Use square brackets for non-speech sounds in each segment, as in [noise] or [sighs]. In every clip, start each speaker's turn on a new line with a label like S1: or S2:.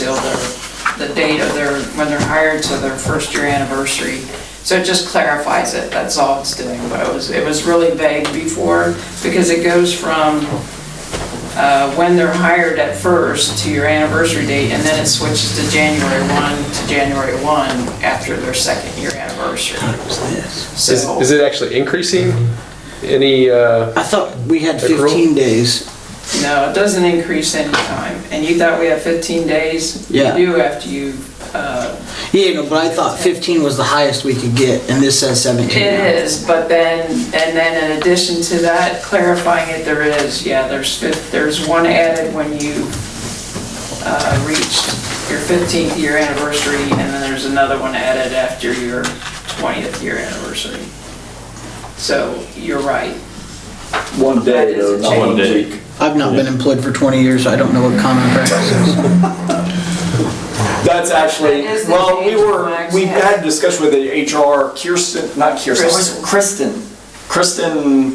S1: seal their, the date of their, when they're hired to their first year anniversary. So it just clarifies it, that's all it's doing, but it was, it was really vague before, because it goes from uh, when they're hired at first to your anniversary date, and then it switches to January 1 to January 1 after their second year anniversary.
S2: Is,
S1: So-
S2: is it actually increasing? Any, uh,
S3: I thought we had
S2: Accrual?
S3: 15 days.
S1: No, it doesn't increase any time. And you thought we had 15 days?
S3: Yeah.
S1: You do after you, uh,
S3: Yeah, no, but I thought 15 was the highest we could get, and this says 17. now.
S1: it is, but then, and then in addition to that, clarifying it, there is, yeah, there's, fif- there's one added when you uh, reached your 15th year anniversary, and then there's another one added after your 20th year anniversary. So you're right.
S4: One
S1: That
S4: day,
S1: is
S4: though,
S1: a
S4: not
S1: change.
S4: one week.
S3: I've not been employed for 20 years, so I don't know what common practice
S4: [laughs]
S3: is.
S4: That's actually,
S1: That is the
S4: well, we
S1: change
S4: were,
S1: flags,
S4: we
S1: yes.
S4: had a discussion with the HR, Kirsten, not Kirsten, Kristen, Kristen,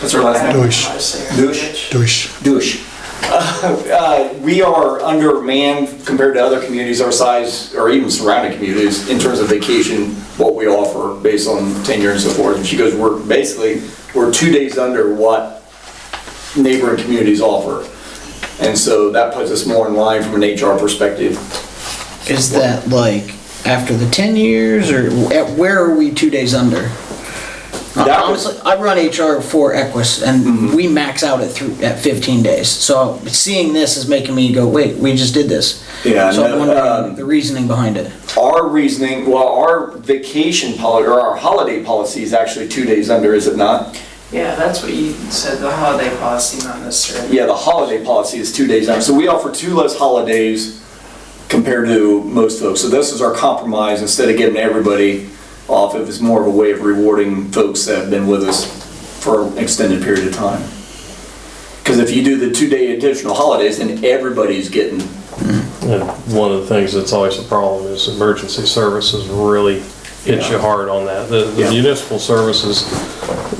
S4: what's her last name?
S5: Deutsch.
S4: Uh, Deutsch.
S5: Durch.
S4: Douche. [laughs] Uh, We are undermanned compared to other communities our size, or even surrounding communities, in terms of vacation, what we offer based on tenure and so forth. And she goes, we're basically, we're two days under what neighboring communities offer. And so that puts us more in line from an HR perspective.
S3: Is that like after the 10 years, or at where are we two days under? Uh,
S4: That Mm-hmm. was-
S3: Honestly, I run HR for Equus, and we max out at thr- at 15 days. So seeing this is making me go, wait, we just did this.
S4: Yeah,
S3: So
S4: no,
S3: I'm wondering
S4: um,
S3: the reasoning behind it.
S4: Our reasoning, well, our vacation policy, or our holiday policy is actually two days under, is it not?
S1: Yeah, that's what you said, the holiday policy, not necessarily.
S4: Yeah, the holiday policy is two days out. So we offer two less holidays compared to most folks. So this is our compromise. Instead of getting everybody off, it was more of a way of rewarding folks that have been with us for an extended period of time. Because if you do the two-day additional holidays, then everybody's getting,
S6: And one of the things that's always a problem is emergency services really hit you hard on that. The the
S4: Yeah.
S6: municipal services,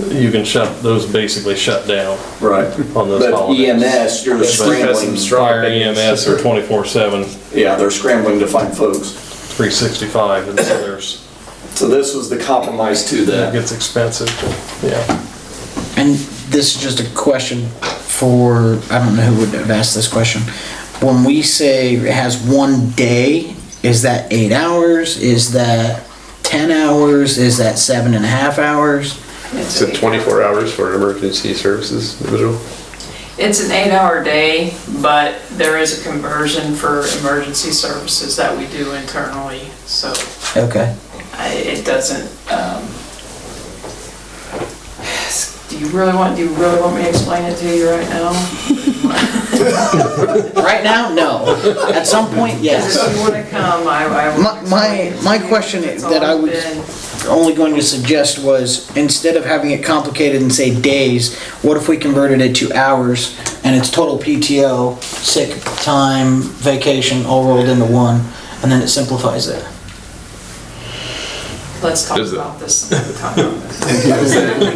S6: you can shut, those basically shut down
S4: right.
S6: on those
S4: But
S6: holidays.
S4: EMS, you're scrambling.
S6: Fire EMS are 24/7,
S4: Yeah, they're scrambling to find folks.
S6: 365, and so there's,
S4: So this was the compromise to
S6: it
S4: that.
S6: gets expensive, yeah.
S3: And this is just a question for, I don't know who would have asked this question. When we say it has one day, is that eight hours? Is that 10 hours? Is that seven and a half hours?
S2: is it 24 hours for an emergency services individual?
S1: It's an eight-hour day, but there is a conversion for emergency services that we do internally, so
S3: Okay.
S1: I- it doesn't, um, [sighs] do you really want, do you really want me to explain it to you right now?
S3: Right now, no. At some point,
S1: Because
S3: yes.
S1: if you want to come, I, I
S3: My-
S1: will.
S3: my-
S1: explain it to
S3: my
S1: you.
S3: question
S1: It's
S3: that I
S1: always
S3: would-
S1: been-
S3: Only going to suggest was instead of having it complicated and say days, what if we converted it to hours and it's total PTO, sick time, vacation, all rolled into one, and then it simplifies it?
S1: Let's talk
S2: Is it-
S1: about this. another time.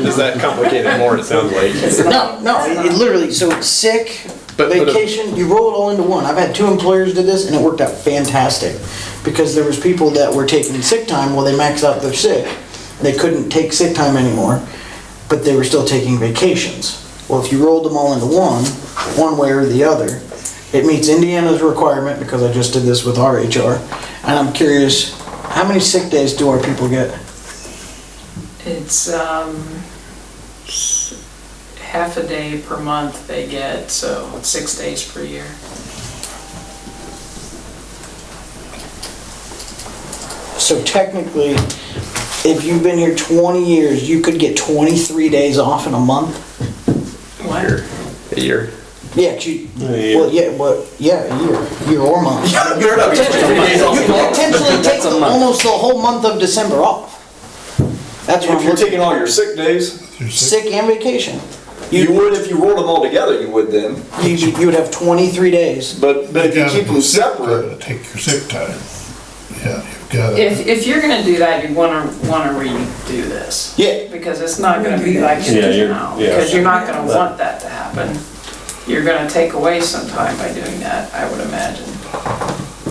S2: Does that complicate it more, it sounds like?
S3: No, no, it it literally, so it's sick,
S2: But- uh, but if-
S3: vacation, you roll it all into one. I've had two employers did this and it worked out fantastic. Because there was people that were taking sick time, well, they maxed out their sick. They couldn't take sick time anymore, but they were still taking vacations. Well, if you rolled them all into one, one way or the other, it meets Indiana's requirement, because I just did this with our HR. And I'm curious, how many sick days do our people get?
S1: It's, um, s- half a day per month they get, so it's six days per year.
S3: So technically, if you've been here 20 years, you could get 23 days off in a month?
S1: What?
S2: A year.
S3: Yeah, 'cause you,
S6: A
S3: well, yeah, well, yeah, a year, year or month. You
S4: You're not getting three days off.
S3: could potentially take the- almost the whole month of December off. That's what
S4: If
S3: I'm
S4: you're
S3: looking
S4: taking all your sick days,
S3: Sick and vacation.
S4: you would if you rolled them all together, you would then.
S3: You, you would have 23 days.
S4: But, but if you keep them separate,
S5: Take your sick time. Yeah, you've got to.
S1: If, if you're gonna do that, you wanna, wanna redo this.
S3: Yeah.
S1: Because it's not gonna be like it
S6: Yeah,
S1: is
S6: you're-
S1: now.
S6: yeah.
S1: Because you're not gonna want that to happen. You're gonna take away some time by doing that, I would imagine.